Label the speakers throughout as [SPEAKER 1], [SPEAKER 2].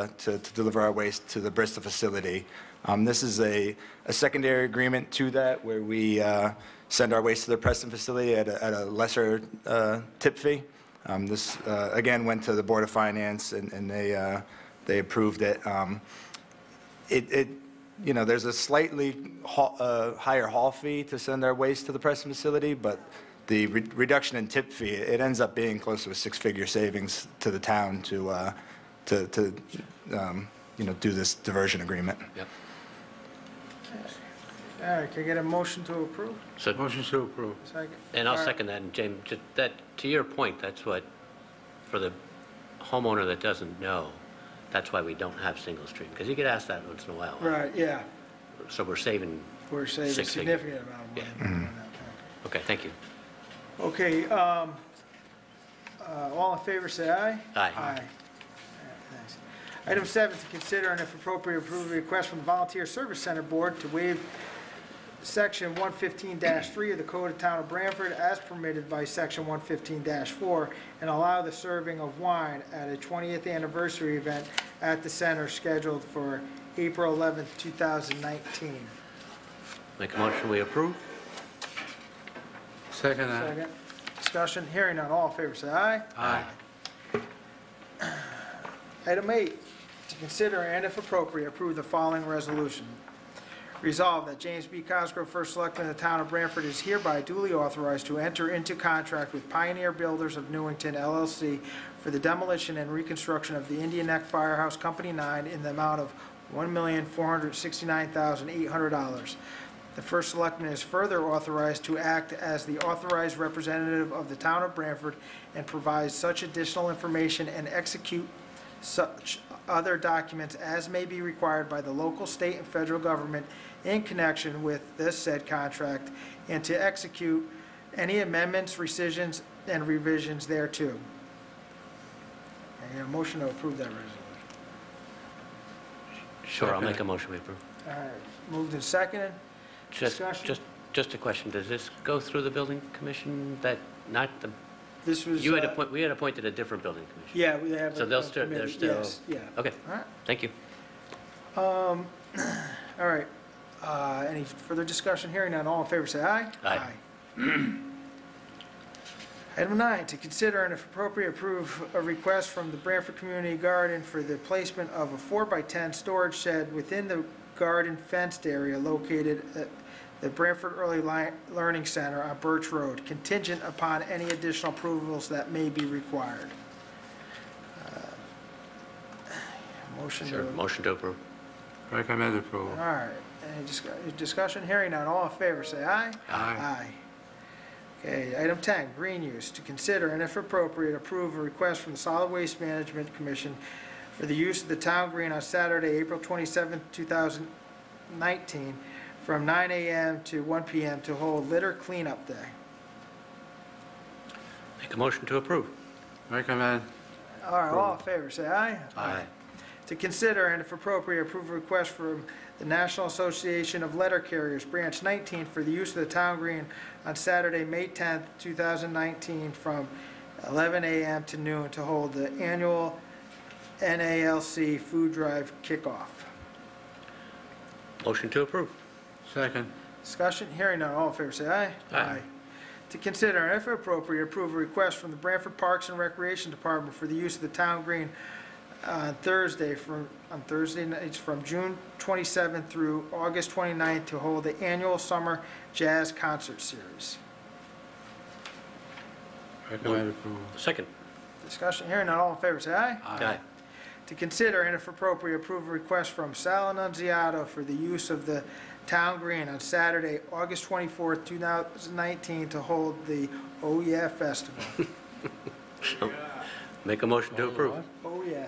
[SPEAKER 1] uh, to, to deliver our waste to the Bristol facility. Um, This is a, a secondary agreement to that where we uh, send our waste to the Preston facility at a, at a lesser uh, tip fee. Um, This, uh, again, went to the Board of Finance and, and they, uh, they approved it. Um, It, it, you know, there's a slightly haul- uh, higher haul fee to send our waste to the Preston facility, but the re- reduction in tip fee, it ends up being close to a six-figure savings to the town to, uh, to, to, um, you know, do this diversion agreement.
[SPEAKER 2] Yep.
[SPEAKER 3] All right, can I get a motion to approve?
[SPEAKER 2] So,
[SPEAKER 4] Motion to approve.
[SPEAKER 3] Second.
[SPEAKER 2] and I'll
[SPEAKER 3] All right.
[SPEAKER 2] second that, and James, ju- that, to your point, that's what, for the homeowner that doesn't know, that's why we don't have single stream, because you get asked that once in a while.
[SPEAKER 3] Right, yeah,
[SPEAKER 2] So we're saving,
[SPEAKER 3] we're saving a
[SPEAKER 2] Six figure.
[SPEAKER 3] significant amount of money. on that
[SPEAKER 2] okay, thank you.
[SPEAKER 3] one. Okay, um, uh, all in favor, say aye.
[SPEAKER 2] Aye.
[SPEAKER 3] All right, thanks. Item seven, to consider and if appropriate, approve a request from the Volunteer Service Center Board to waive Section 115-3 of the Code of Town of Branford as permitted by Section 115-4 and allow the serving of wine at a 20th anniversary event at the center scheduled for April 11th, 2019.
[SPEAKER 2] Make a motion, we approve?
[SPEAKER 4] Second that.
[SPEAKER 3] Second. Discussion, hearing none, all in favor, say aye.
[SPEAKER 4] Aye.
[SPEAKER 3] Item eight, to consider and if appropriate, approve the following resolution. Resolved that James B. Cosgrove, First Selectman of the Town of Branford, is hereby duly authorized to enter into contract with Pioneer Builders of Newington LLC for the demolition and reconstruction of the Indian Neck Firehouse Company 9 in the amount of $1,469,800. The First Selectman is further authorized to act as the authorized representative of the Town of Branford and provide such additional information and execute such other documents as may be required by the local, state, and federal government in connection with this said contract, and to execute any amendments, rescissions, and revisions thereto. I get a motion to approve that resolution.
[SPEAKER 2] Sure, I'll
[SPEAKER 4] Second.
[SPEAKER 2] make a motion, we approve.
[SPEAKER 3] All right, moved and seconded.
[SPEAKER 2] Just,
[SPEAKER 3] Discussion?
[SPEAKER 2] just, just a question, does this go through the building commission, that, not the,
[SPEAKER 3] This was.
[SPEAKER 2] you had
[SPEAKER 3] uh,
[SPEAKER 2] appoint, we had appointed a different building commission?
[SPEAKER 3] Yeah, we have.
[SPEAKER 2] So
[SPEAKER 3] a-
[SPEAKER 2] they'll
[SPEAKER 3] a
[SPEAKER 2] still- they're
[SPEAKER 3] committee,
[SPEAKER 2] still-
[SPEAKER 3] Yes, yeah.
[SPEAKER 2] Okay,
[SPEAKER 3] All right,
[SPEAKER 2] thank you.
[SPEAKER 3] all right. Uh, Any further discussion? Hearing none, all in favor, say aye.
[SPEAKER 2] Aye.
[SPEAKER 3] Item nine, to consider and if appropriate, approve a request from the Branford Community Garden for the placement of a four-by-ten storage shed within the garden fenced area located at the Branford Early Li- Learning Center on Birch Road, contingent upon any additional approvals that may be required. Uh, Motion to
[SPEAKER 2] Sure, motion to approve.
[SPEAKER 4] Recommend approval.
[SPEAKER 3] all right, any discu- discussion? Hearing none, all in favor, say aye.
[SPEAKER 4] Aye.
[SPEAKER 3] Okay, item 10, green use, to consider and if appropriate, approve a request from the Solid Waste Management Commission for the use of the town green on Saturday, April 27, 2019, from 9 a.m. to 1 p.m. to hold litter cleanup day.
[SPEAKER 2] Make a motion to approve.
[SPEAKER 4] Recommend.
[SPEAKER 3] All right, all in favor, say aye.
[SPEAKER 2] Aye.
[SPEAKER 3] to consider and if appropriate, approve a request from the National Association of Letter Carriers, Branch 19, for the use of the town green on Saturday, May 10th, 2019, from 11 a.m. to noon to hold the annual NALC food drive kickoff.
[SPEAKER 2] Motion to approve.
[SPEAKER 4] Second.
[SPEAKER 3] Discussion, hearing none, all in favor, say aye.
[SPEAKER 2] Aye.
[SPEAKER 3] To consider, and if appropriate, approve a request from the Branford Parks and Recreation Department for the use of the town green on Thursday from, on Thursday nights from June 27th through August 29th to hold the annual summer jazz concert series.
[SPEAKER 4] Recommend approval.
[SPEAKER 2] Second.
[SPEAKER 3] Discussion, hearing none, all in favor, say aye.
[SPEAKER 2] Aye.
[SPEAKER 3] to consider and if appropriate approve a request from Sal Annunziata for the use of the town green on Saturday, August 24th, 2019, to hold the Oh Yeah Festival.
[SPEAKER 2] Make a motion to approve.
[SPEAKER 3] Oh Yeah.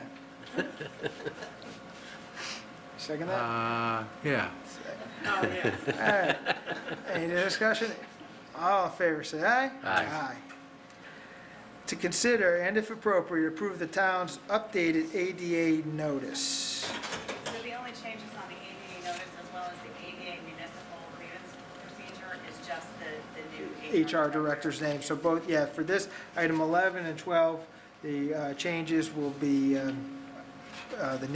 [SPEAKER 3] Second that?
[SPEAKER 4] Uh, yeah.
[SPEAKER 5] Oh,
[SPEAKER 3] All right. Any discussion? All in favor, say aye.
[SPEAKER 2] Aye.
[SPEAKER 3] To consider and if appropriate approve the town's updated ADA notice.
[SPEAKER 5] So the only changes on the ADA notice as well as the ADA municipal grievance procedure is just the, the new.
[SPEAKER 3] HR director's name, so both, yeah, for this, item 11 and 12, the uh, changes will be, um, uh, the